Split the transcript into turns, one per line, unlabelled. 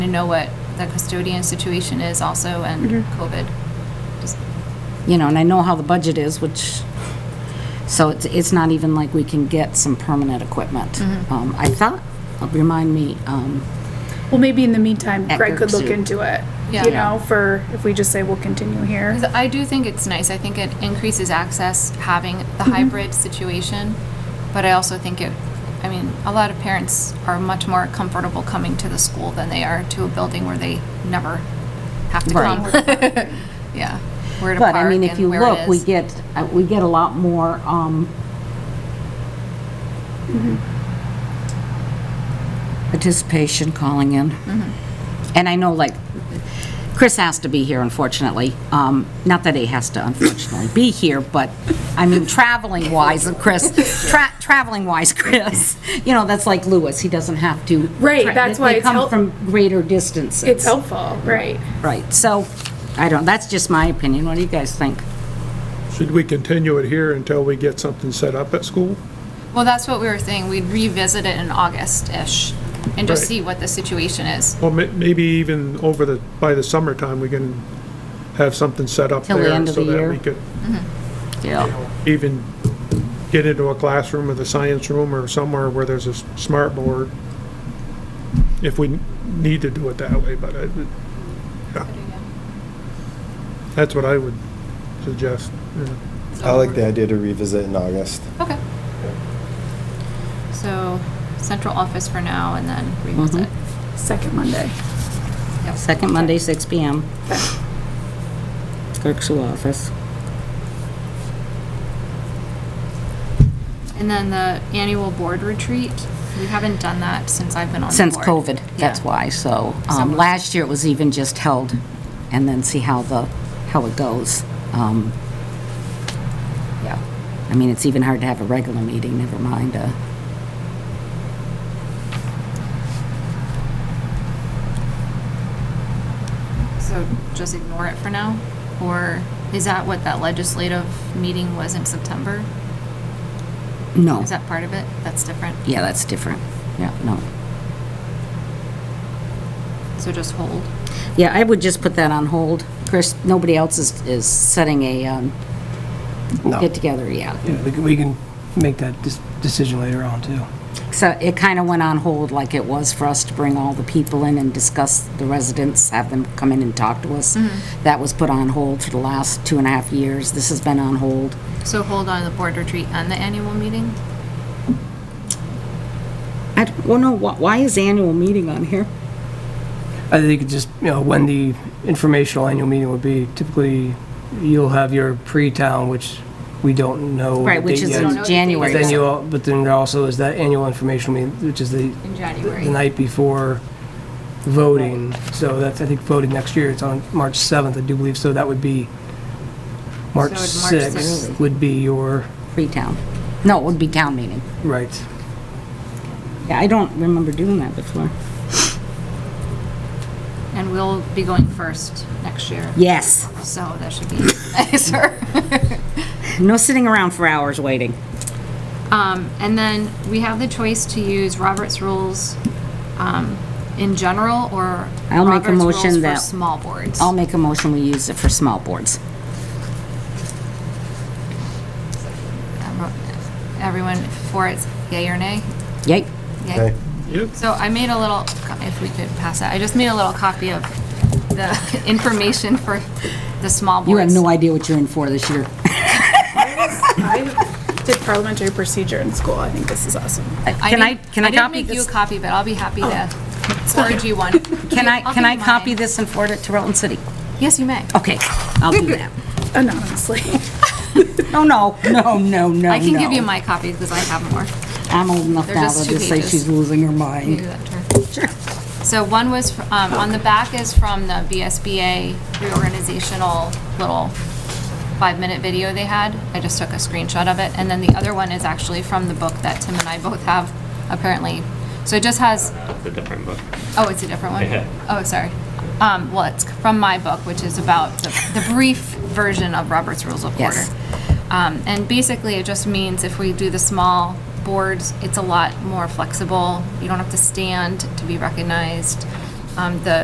know what the custodian situation is also and
Mm-hmm.
COVID. Just-
you know, and I know how the budget is, which, so it's, it's not even like we can get some permanent equipment. Um, I thought, remind me, um,
Well, maybe in the meantime,
At
Greg could look
Gertrude.
into it,
Yeah.
you know, for, if we just say we'll continue here.
'cause I do think it's nice. I think it increases access having the
Mm-hmm.
hybrid situation, but I also think it, I mean, a lot of parents are much more comfortable coming to the school than they are to a building where they never have to come.
Right.
Yeah. Where to
but I
park
mean, if
and
you
where it
look, we
is.
get, uh, we get a lot more, um, participation calling in.
Mm-hmm.
And I know, like, Chris has to be here, unfortunately. Um, Not that he has to unfortunately be here, but, I mean, traveling wise, Chris, tra- traveling wise, Chris, you know, that's like Lewis, he doesn't have to.
Right,
tra-
that's why
They
it's
come
help-
from greater distances.
It's helpful, right?
Right, so, I don't, that's just my opinion. What do you guys think?
Should we continue it here until we get something set up at school?
Well, that's what we were saying. We'd revisit it in August-ish and just
Right.
see what the situation is.
Or ma- maybe even over the, by the summertime, we can have something set up
Till the
there
end of
so
the
that
year.
we could
Yeah.
even get into a classroom or the science room or somewhere where there's a s- smart board. If we need to do it that way, but I, yeah. That's what I would suggest, yeah.
I like the idea to revisit in August.
Okay. So central office for now and then
Mm-hmm.
revisit.
Second Monday.
Second Monday, 6 PM. Clerk's office.
And then the annual board retreat, we haven't done that since I've been on the
Since
board.
COVID, that's
Yeah.
why, so, um,
Someone-
last year it was even just held, and then see how the, how it goes. Um, Yeah, I mean, it's even hard to have a regular meeting, never mind a,
So just ignore it for now? Or is that what that legislative meeting was in September?
no.
Is that part of it? That's different?
Yeah, that's different, yeah, no.
So just hold?
Yeah, I would just put that on hold. Chris, nobody else is, is setting a, um,
No.
get-together, yeah.
Yeah, we can- we can make that dis- decision later on, too.
So it kind of went on hold like it was for us to bring all the people in and discuss the residents, have them come in and talk to us. That was put on hold for the last two and a half years. This has been on hold.
So hold on the board retreat and the annual meeting?
I, don't- well, no, wh- why is annual meeting on here?
I think it just, you know, when the informational annual meeting would be, typically, you'll have your pre-town, which we don't know. the
Right, which
date
is
yet.
don't know
in
the date
But
January.
then
yet.
you, al- but then there also is that annual informational meeting, which is the,
In
the
January?
night before voting. So that's, I think, voting next year, it's on March 7th, I do believe, so that would be, March
So it'd March
6th
sixth.
would be your,
Pre-town. No, it would be town meeting.
right.
Yeah, I don't remember doing that before.
And we'll be going first next year.
Yes,
So that should be nicer.
no sitting around for hours waiting.
Um, and then we have the choice to use Robert's rules, um, in general or
I'll make a
Robert's
motion
rules for
that-
Small boards.
I'll make a motion, we use it for small boards.
Um, Everyone for it, yay or nay?
Yay?
Yay.
Okay.
Yep.
So I made a little, co- if we could pass that, I just made a little copy of the information for the small boards.
You have no idea what you're in for this year.
I did parliamentary procedure in school. I think this is awesome.
Can I,
didn't-
can I copy
didn't make you
this?
a copy, but I'll be happy to forward you one.
Can I,
I'll
can
give
I
you
copy Oh,
mine.
this and forward it to Rutland City?
Yes, you may.
Okay, I'll do that.
Anonymously.
No, no, no, no, no,
I can give you
no.
my copy because I have more.
I'm old enough
They're
now
just
to
two
just say
pages.
she's losing her
You do
mind.
that, Tara. So one was, fr- um, on the back is from the BSBA reorganizational little five-minute video they had. I just took a screenshot of it. And then the other one is actually from the book that Tim and I both have, apparently. So it just has,
It's a different book.
oh, it's a different one?
Yeah.
Oh, sorry. Um, Well, it's from my book, which is about the the brief version of Robert's Rules of Order.
Yes.
Um, And basically, it just means if we do the small boards, it's a lot more flexible. You don't have to stand to be recognized. Um, The